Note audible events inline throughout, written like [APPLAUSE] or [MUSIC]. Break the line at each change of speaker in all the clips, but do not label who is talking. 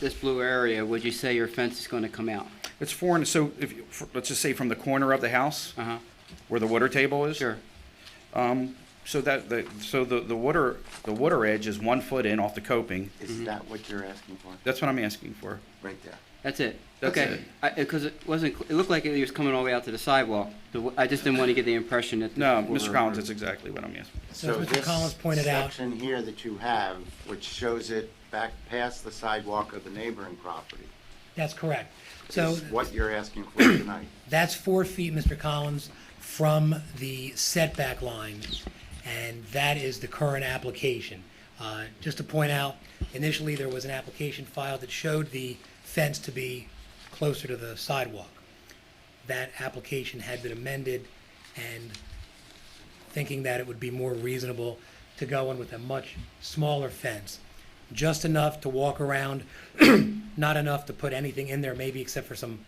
this blue area, would you say your fence is going to come out?
It's four and, so if, you- f- let's just say from the corner of the house
Uh.
Uh-huh,
where the water table is. Um,
sure.
So that, the, so the, the water, the water edge is one foot in off the coping.
Is Mm-hmm. that what you're asking for,
That's what I'm asking for.
right there?
That's it?
That's
Okay.
it.
Because it wasn't, cl- it looked like it was coming all the way out to the sidewalk. The w- I just didn't want to get the impression that.
No,
we
Mr.
were-
Collins, that's exactly what I'm asking.
So
Mr.
this
Collins pointed out.
Section here that you have, which shows it back past the sidewalk of the neighboring property,
That's correct. So
is what you're asking for [CLEARS THROAT] tonight.
that's four feet, Mr. Collins, from the setback line, and that is the current application. Uh, Just to point out, initially, there was an application filed that showed the fence to be closer to the sidewalk. That application had been amended, and thinking that it would be more reasonable to go in with a much smaller fence, just enough to walk around, [CLEARS THROAT] not enough to put anything in there, maybe except for some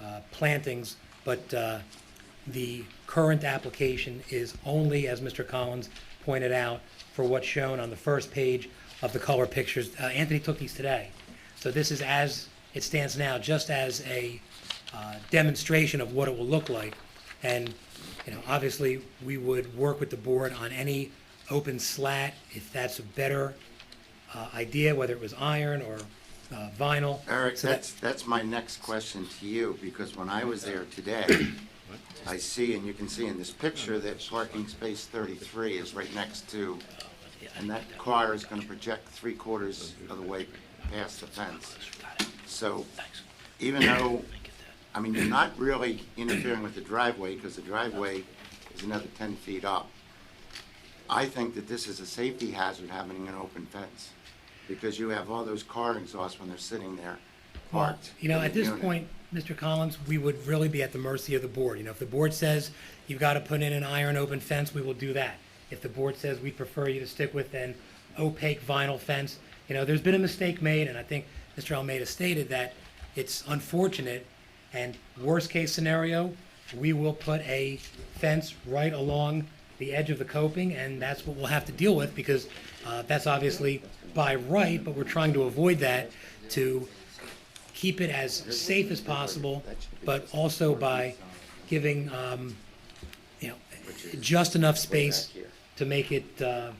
uh, plantings, but uh, the current application is only, as Mr. Collins pointed out, for what's shown on the first page of the color pictures. Uh, Anthony took these today. So this is as it stands now, just as a uh, demonstration of what it will look like. And, you know, obviously, we would work with the board on any open slat, if that's a better uh, idea, whether it was iron or uh, vinyl.
Eric,
So that-
that's, that's my next question to you, because when I was there today, I see, and you can see in this picture, that parking space thirty-three is right next to, and that car is gonna project three quarters of the way past the fence. So, even though, I mean, you're not really interfering with the driveway, because the driveway is another ten feet up. I think that this is a safety hazard having an open fence, because you have all those car exhausts when they're sitting there parked.
You know,
in
at
the
this
unit.
point, Mr. Collins, we would really be at the mercy of the board. You know, if the board says you've got to put in an iron open fence, we will do that. If the board says we prefer you to stick with an opaque vinyl fence, you know, there's been a mistake made, and I think Mr. Almeida stated that it's unfortunate, and worst case scenario, we will put a fence right along the edge of the coping, and that's what we'll have to deal with, because uh, that's obviously by right, but we're trying to avoid that to keep it as safe as possible, but also by giving, um, you know, just enough space to make it, uh,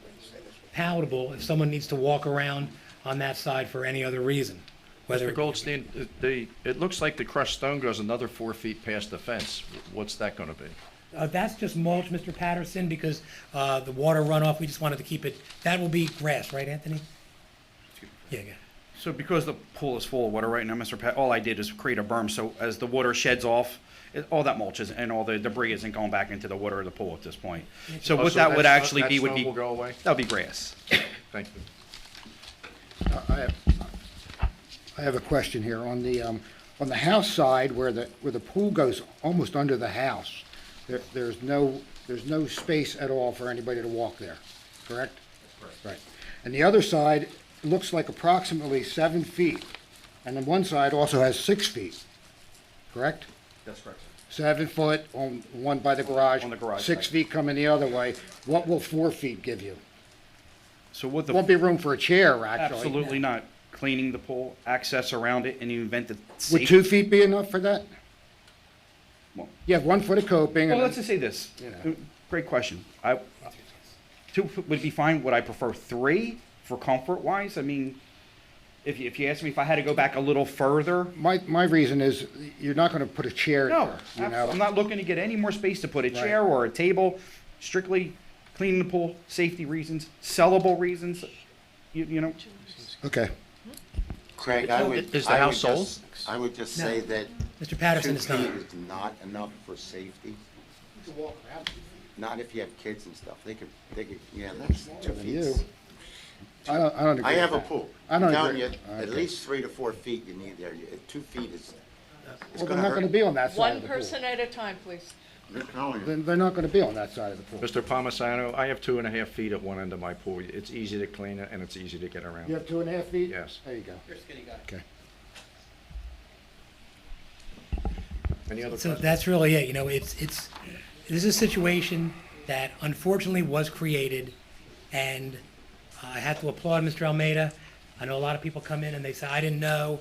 palatable if someone needs to walk around on that side for any other reason, whether.
Mr. Goldstein, it- the, it looks like the crushed stone goes another four feet past the fence. What's that gonna be?
Uh, that's just mulch, Mr. Patterson, because, uh, the water runoff, we just wanted to keep it, that will be grass, right, Anthony? Yeah, yeah.
So because the pool is full of water right now, Mr. Pat, all I did is create a berm, so as the water sheds off, it- all that mulch is, and all the debris isn't going back into the water of the pool at this point. So
Oh,
what
so
that would
that's-
actually
that
be would
stone
be,
will go away?
that'll be grass.
Thank you.
I have, I have a question here. On the, um, on the house side where the, where the pool goes almost under the house, there, there's no, there's no space at all for anybody to walk there, correct? Right. And the other side looks like approximately seven feet. And then one side also has six feet, correct?
That's correct.
Seven foot on, one by the garage.
On the garage
Six
side.
feet coming the other way. What will four feet give you?
So what
Won't
the,
be room for a chair, actually.
absolutely not. Cleaning the pool, access around it, and the event that
Would
safety.
two feet be enough for that?
Well-
You have one foot of coping
Well,
and
let's
then-
just say this. Uh,
You know.
Great question. I, two f- would be fine. Would I prefer three for comfort wise? I mean, if you, if you ask me if I had to go back a little further,
my, my reason is you're not gonna put a chair in
no,
there, you
abso- I'm
know?
not looking to get any more space to put a chair or a table. Strictly cleaning the pool, safety reasons, sellable reasons. You, you know,
Okay.
Craig, I would.
Is the
I would
house sold?
just- I would just say that
Mr.
two
Patterson is not.
feet is not enough for safety. Not if you have kids and stuff. They could, they could, yeah, that's two
And
feet.
you? I don't, I don't agree
I have a
with that.
pool.
I don't
I'm telling
agree.
you, At
Okay.
least three to four feet you need there. You- Two feet is, it's
Well,
gonna
they're not gonna
hurt.
be on that side
One
of the pool.
person at a time, please.
I'm telling you.
Then they're not gonna be on that side of the pool.
Mr. Palmisano, I have two and a half feet at one end of my pool. It's easy to clean it and it's easy to get
You
around.
have two and a half feet?
Yes.
There you go. Okay.
Any other
So
questions?
that's really it, you know, it's, it's, this is a situation that unfortunately was created, and I have to applaud Mr. Almeida. I know a lot of people come in and they say, I didn't know,